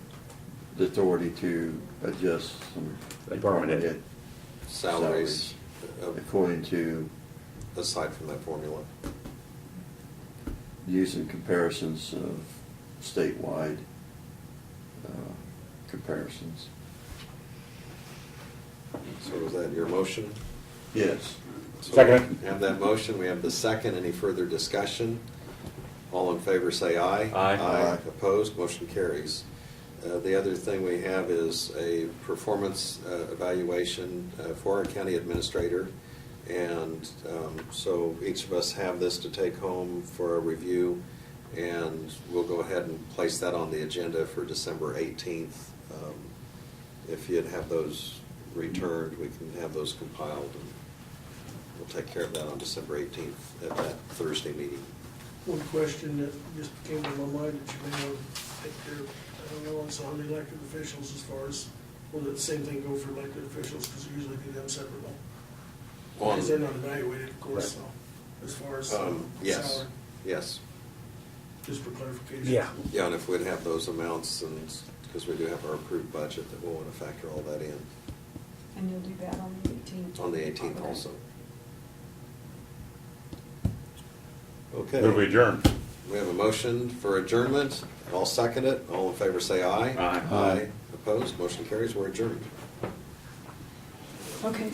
the authority to adjust some. Department head. Salaries salaries, uh, according to aside from that formula. using comparisons of statewide uh, comparisons. So is that your motion? Yes. So Second. we Have that motion, we have the second, any further discussion? All in favor, say aye. Aye. Aye. Opposed, motion carries. Uh, The other thing we have is a performance uh, evaluation uh, for our county administrator. And um, so each of us have this to take home for a review, and we'll go ahead and place that on the agenda for December 18th. Um, If you'd have those returned, we can have those compiled, and we'll take care of that on December 18th at that Thursday meeting. One question that just came to my mind that you may want to take care of, I don't know, it's on the elected officials as far as, will the same thing go for elected officials, because usually do them separately? Because they're not evaluated, of course, so, as far as um, Um, Yes, salary, yes. just for clarification. Yeah. Yeah, and if we'd have those amounts, and, because we do have our approved budget, that we'll want to factor all that in And you'll do that on the 18th? on the 18th also. Move we Okay, adjourn. we have a motion for adjournment. I'll second it. All in favor, say aye. Aye. Aye. Opposed, motion carries, we're adjourned. Okay,